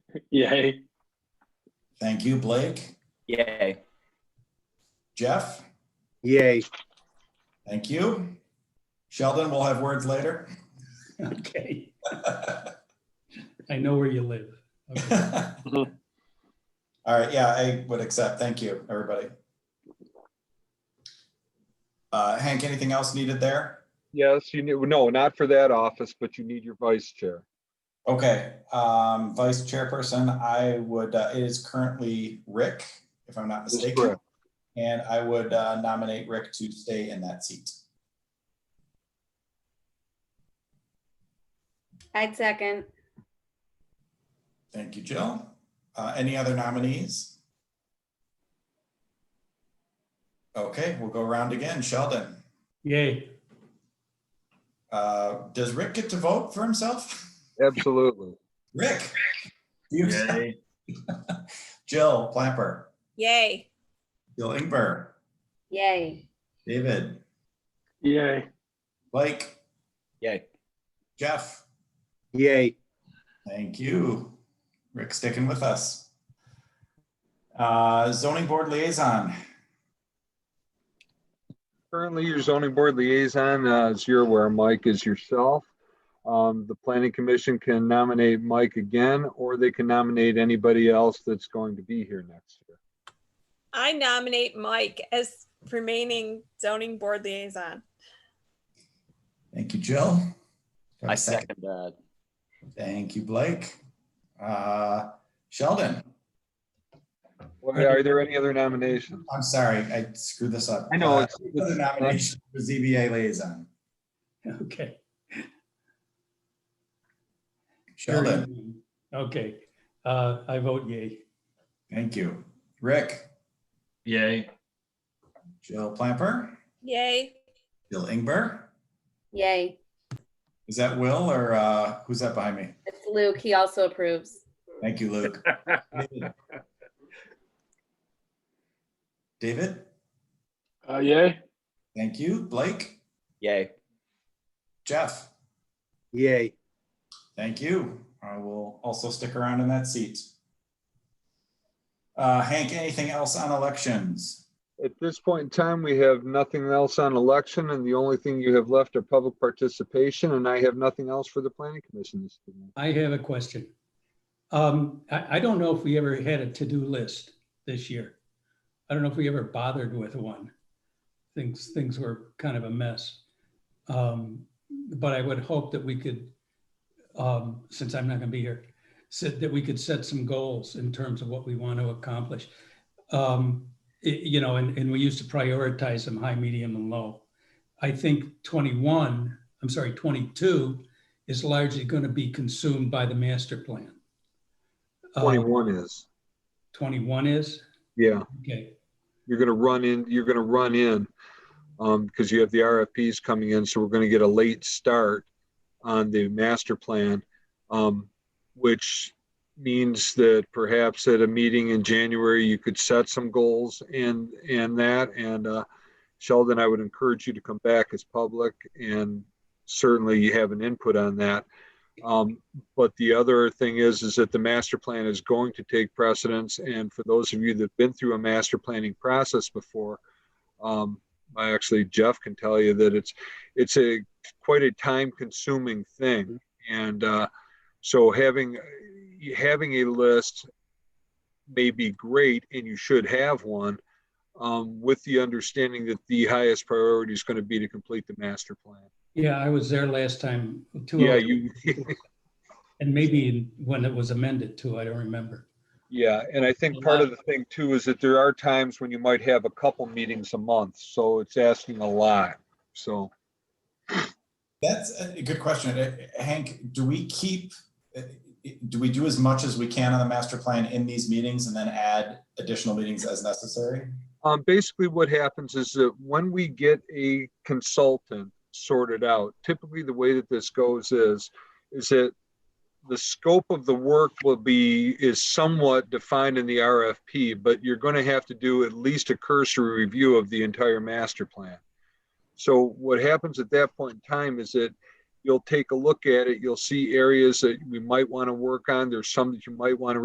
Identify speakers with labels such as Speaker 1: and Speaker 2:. Speaker 1: Yay.
Speaker 2: Thank you, Blake.
Speaker 3: Yay.
Speaker 2: Jeff,
Speaker 4: Yay.
Speaker 2: thank you. Sheldon, we'll have words later.
Speaker 5: Okay, I know where you live. Okay.
Speaker 2: All right, yeah, I would accept. Thank you, everybody. Uh, Hank, anything else needed there?
Speaker 6: Yes, you knew, no, not for that office, but you need your vice chair.
Speaker 2: Okay, um, vice chairperson, I would, uh, it is currently Rick, if I'm not
Speaker 6: That's
Speaker 2: mistaken.
Speaker 6: correct.
Speaker 2: And I would uh, nominate Rick to stay in that seat.
Speaker 7: I'd second.
Speaker 2: Thank you, Jill. Uh, any other nominees? Okay, we'll go around again. Sheldon,
Speaker 5: Yay,
Speaker 2: uh, does Rick get to vote for himself?
Speaker 6: Absolutely.
Speaker 2: Rick? you- Jill Plapper,
Speaker 7: Yay.
Speaker 2: Jill Ingber,
Speaker 7: Yay.
Speaker 2: David,
Speaker 1: Yay.
Speaker 2: Blake,
Speaker 3: Yay.
Speaker 2: Jeff.
Speaker 4: Yay.
Speaker 2: Thank you. Rick sticking with us. Uh, zoning board liaison,
Speaker 6: Currently, your zoning board liaison, uh, as you're aware, Mike is yourself. Um, the planning commission can nominate Mike again, or they can nominate anybody else that's going to be here next year.
Speaker 8: I nominate Mike as remaining zoning board liaison.
Speaker 2: thank you, Jill. Do have
Speaker 3: I
Speaker 2: a
Speaker 3: second that.
Speaker 2: Thank you, Blake. Uh, Sheldon,
Speaker 6: Well, Are there any other nominations?
Speaker 2: I'm sorry, I screwed this up.
Speaker 6: I know,
Speaker 2: Uh,
Speaker 6: it's-
Speaker 2: Other nomination for ZBA liaison,
Speaker 5: okay.
Speaker 2: Sheldon,
Speaker 5: Okay, uh, I vote yay.
Speaker 2: thank you. Rick,
Speaker 3: Yay.
Speaker 2: Jill Plapper,
Speaker 8: Yay.
Speaker 2: Jill Ingber.
Speaker 7: Yay.
Speaker 2: Is that Will or uh, who's that behind me?
Speaker 7: It's Luke. He also approves.
Speaker 2: Thank you, Luke. David,
Speaker 1: Uh, yay.
Speaker 2: thank you. Blake,
Speaker 3: Yay.
Speaker 2: Jeff,
Speaker 4: Yay.
Speaker 2: thank you. I will also stick around in that seat. Uh, Hank, anything else on elections?
Speaker 6: At this point in time, we have nothing else on election, and the only thing you have left are public participation, and I have nothing else for the planning commission this evening.
Speaker 5: I have a question. Um, I, I don't know if we ever had a to-do list this year. I don't know if we ever bothered with one. Things, things were kind of a mess. Um, but I would hope that we could, um, since I'm not gonna be here, said that we could set some goals in terms of what we want to accomplish. Um, it- you know, and, and we used to prioritize them high, medium, and low. I think twenty-one, I'm sorry, twenty-two is largely going to be consumed by the master plan. Um,
Speaker 6: Twenty-one is,
Speaker 5: 21 is?
Speaker 6: yeah.
Speaker 5: Okay,
Speaker 6: you're gonna run in, you're gonna run in, um, because you have the RFPs coming in, so we're gonna get a late start on the master plan, um, which means that perhaps at a meeting in January, you could set some goals and, and that, and, uh, Sheldon, I would encourage you to come back as public and certainly you have an input on that. Um, but the other thing is, is that the master plan is going to take precedence. And for those of you that've been through a master planning process before, um, I actually Jeff can tell you that it's it's a quite a time consuming thing. And uh, so having having a list may be great, and you should have one. Um, with the understanding that the highest priority is going to be to complete the master plan.
Speaker 5: yeah, I was there last time, two,
Speaker 6: Yeah,
Speaker 5: hours,
Speaker 6: you
Speaker 5: and maybe in- when it was amended too, I don't remember.
Speaker 6: Yeah, and I think part of the thing too is that there are times when you might have a couple meetings a month, so it's asking a lot. So
Speaker 2: That's a good question. Uh, Hank, do we keep, uh, do we do as much as we can on the master plan in these meetings and then add additional meetings as necessary?
Speaker 6: um, basically what happens is that when we get a consultant sorted out, typically the way that this goes is, is that the scope of the work will be, is somewhat defined in the RFP, but you're going to have to do at least a cursory review of the entire master plan. So what happens at that point in time is that you'll take a look at it, you'll see areas that we might want to work on, there's some that you might want to